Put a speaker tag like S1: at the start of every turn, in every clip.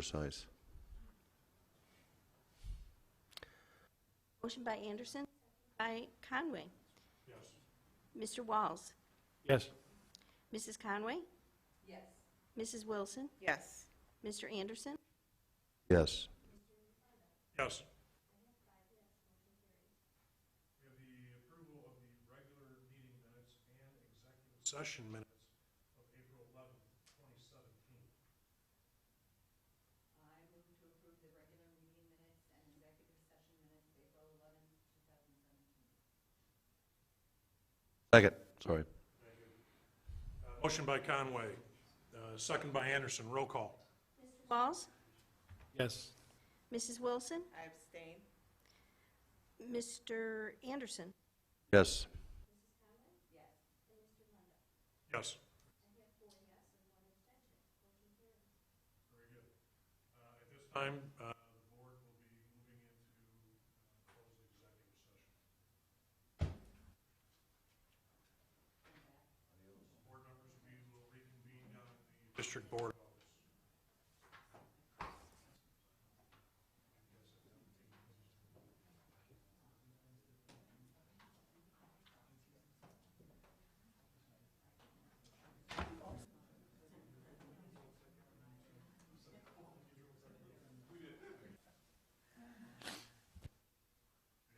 S1: precise.
S2: Motion by Anderson, by Conway. Yes. Mr. Walls?
S3: Yes.
S2: Mrs. Conway? Yes. Mrs. Wilson?
S4: Yes.
S2: Mr. Anderson?
S1: Yes.
S3: Yes. We have the approval of the regular meeting minutes and executive session minutes.
S1: Second, sorry.
S3: Motion by Conway, uh, second by Anderson, roll call.
S2: Walls?
S3: Yes.
S2: Mrs. Wilson?
S4: I abstain.
S2: Mr. Anderson?
S1: Yes.
S3: Yes. Very good. Uh, At this time, uh, the board will be moving into uh, closed executive session. Board members, we will reconvene down at the district board office.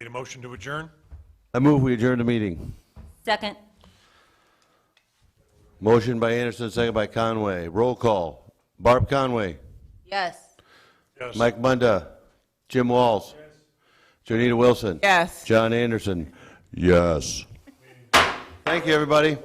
S3: Need a motion to adjourn?
S1: I move we adjourn the meeting.
S5: Second.
S1: Motion by Anderson, second by Conway. Roll call. Barb Conway,
S5: Yes.
S3: Yes.
S1: Mike Munda, Jim Walls, Janita Wilson.
S4: Yes.
S1: John Anderson. Yes. Thank you, everybody.